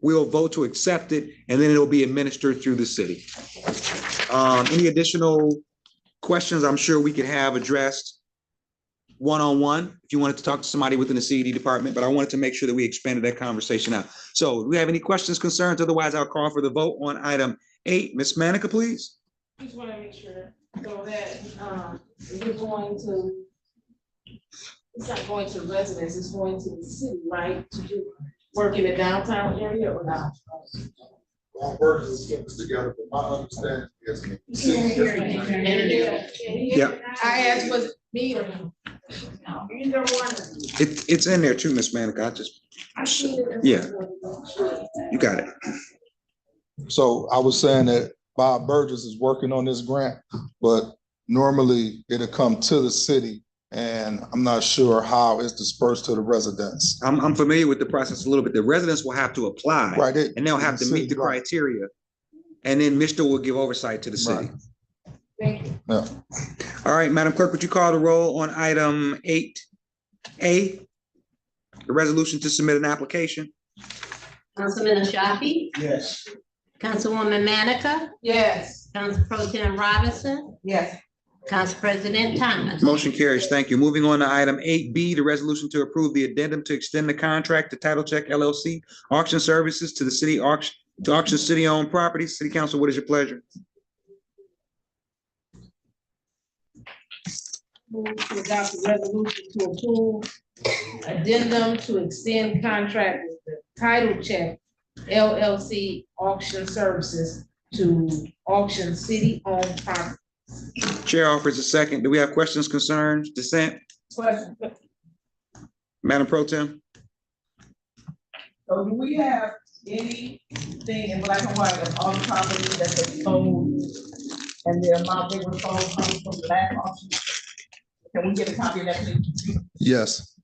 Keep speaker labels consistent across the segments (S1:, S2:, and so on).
S1: We'll vote to accept it and then it'll be administered through the city. Um, any additional questions I'm sure we could have addressed one-on-one, if you wanted to talk to somebody within the CED department, but I wanted to make sure that we expanded that conversation out. So do we have any questions, concerns? Otherwise, I'll call for the vote on item eight. Ms. Manica, please.
S2: Just wanna make sure, so that, um, we're going to, it's not going to residents, it's going to the city, right, to do work in the downtown area or not?
S3: Well, words is sentence together, but my understanding is.
S1: Yeah.
S2: I asked was me or him. Either one.
S1: It, it's in there too, Ms. Manica. I just,
S2: I see it.
S1: Yeah. you got it.
S3: So I was saying that Bob Burgess is working on this grant, but normally it'll come to the city and I'm not sure how it's dispersed to the residents.
S1: I'm, I'm familiar with the process a little bit. The residents will have to apply.
S3: Right? it-
S1: And they'll have to meet the
S3: Right.
S1: criteria. And then Mr. will give oversight to the city.
S2: Thank you.
S1: All right, Madam Clerk, would you call the roll on item eight A? The resolution to submit an application?
S4: Councilman Ashafi,
S5: Yes.
S4: Councilwoman Manica,
S2: Yes.
S4: Council Pro Tim Robinson,
S2: Yes.
S4: Council President Thomas.
S1: Motion carries. Thank you. Moving on to item eight B, the resolution to approve the addendum to extend the contract to Title Check LLC Auction Services to the city auction, to auction city-owned properties. City Council, what is your pleasure?
S2: Move to adopt the resolution to approve addendum to extend contract with the title check LLC auction services to auction city-owned property.
S1: Chair offers a second. Do we have questions, concerns, dissent?
S6: Question,
S1: Madam Pro Tem?
S6: so do we have anything in black and white of all the properties that they sold? And the amount they were sold comes from the last auction? Can we get a copy of that, please?
S3: Yes.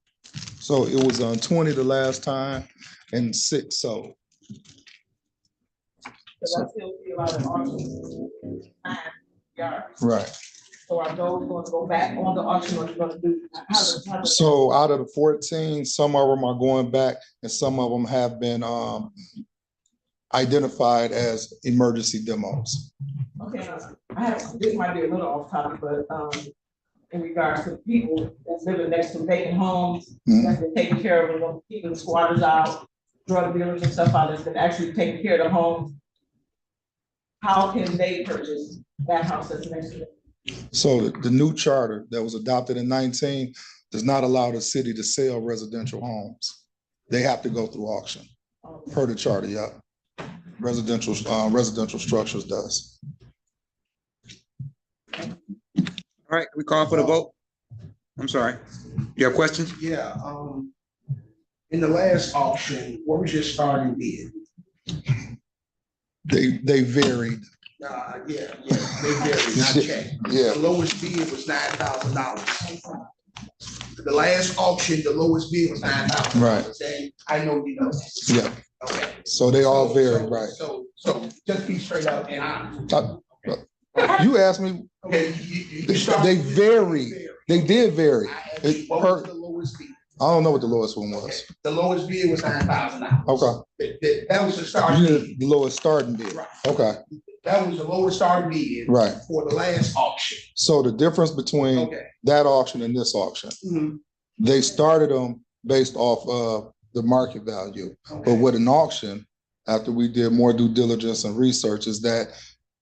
S3: So it was on twenty the last time and six, so
S6: Because I still see a lot of auctions. Nine yards.
S3: right.
S6: So are those going to go back on the auction or you gonna do? how does- how does-
S3: So out of the fourteen, some of them are going back and some of them have been um identified as emergency demos.
S6: Okay, uh, I have, this might be a little off topic, but, um, in regards to people that's living next to vacant homes,
S3: Mhm.
S6: that's been taken care of, and keeping squatters out, drug dealers and stuff out, that's been actually taking care of the homes. How can they purchase that house that's next to them?
S3: So the the new charter that was adopted in nineteen does not allow the city to sell residential homes. They have to go through auction,
S6: Um,
S3: per the charter, yeah. Residential, uh, residential structures does.
S1: All right, we call for the vote. I'm sorry. You have questions?
S5: Yeah, um, in the last auction, what was your starting bid?
S3: They, they varied,
S5: Uh, yeah, yeah, they varied, not checked.
S3: yeah.
S5: The lowest bid was nine thousand dollars. The last auction, the lowest bid was nine thousand. Right. I know you know. that.
S3: Yeah,
S5: Okay.
S3: so they all
S5: So- so-
S3: varied, right.
S5: So, so just be straight up and honest.
S3: You asked me,
S5: Okay, you- you- you
S3: They-
S5: start
S3: they
S5: with the-
S3: varied. they did vary.
S5: I
S3: I
S5: asked
S3: It
S5: you, what was
S3: per-
S5: the lowest bid?
S3: don't know what the lowest one was.
S5: Okay, The lowest bid was nine thousand dollars.
S3: Okay,
S5: That, that, that was the
S3: you
S5: starting bid.
S3: did the lowest starting bid.
S5: Right.
S3: Okay,
S5: That was the lowest starting bid
S3: right.
S5: for the last auction.
S3: So the difference between
S5: Okay.
S3: that auction and this auction,
S5: Mhm.
S3: they started them based off of the market value. But
S5: Okay.
S3: with an auction, after we did more due diligence and research, is that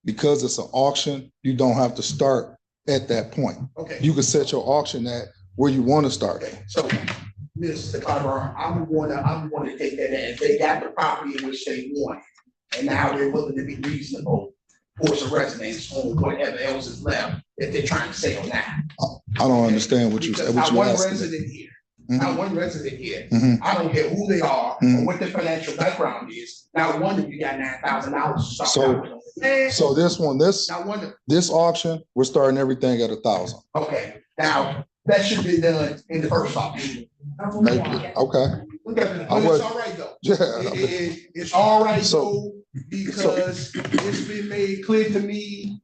S3: because it's an auction, you don't have to start at that point.
S5: Okay.
S3: You can set your auction at where you want to start at.
S5: Okay, so, Mr. Carter, I'm gonna, I'm gonna take that as they got the property in which they want. And now they're willing to be reasonable for some residents on whatever else is left that they're trying to sell now.
S3: I don't understand what you,
S5: Because
S3: what
S5: not
S3: you're
S5: one
S3: asking.
S5: resident here,
S3: Mhm,
S5: not one resident here,
S3: mhm.
S5: I don't care who they are or
S3: Mhm.
S5: what their financial background is, not one of you got nine thousand dollars to
S3: So-
S5: start out with. Eh,
S3: So this one, this,
S5: Not one of
S3: this auction, we're starting everything at a thousand.
S5: Okay, now, that should be done in the first option.
S6: um,
S3: Okay,
S5: Because,
S3: I
S5: but
S3: was-
S5: it's all right though. It-
S3: yeah.
S5: it- it's all right
S3: So-
S5: though, because it's been made clear to me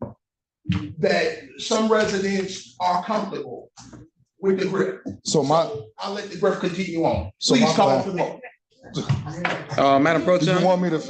S5: that some residents are comfortable with the grip.
S3: So my,
S5: I'll let the grip continue on.
S3: So
S5: Please
S3: my
S5: call
S3: plan-
S5: for the vote.
S7: Uh, Madam Pro
S1: Do you
S7: Tem?
S1: Uh, want me to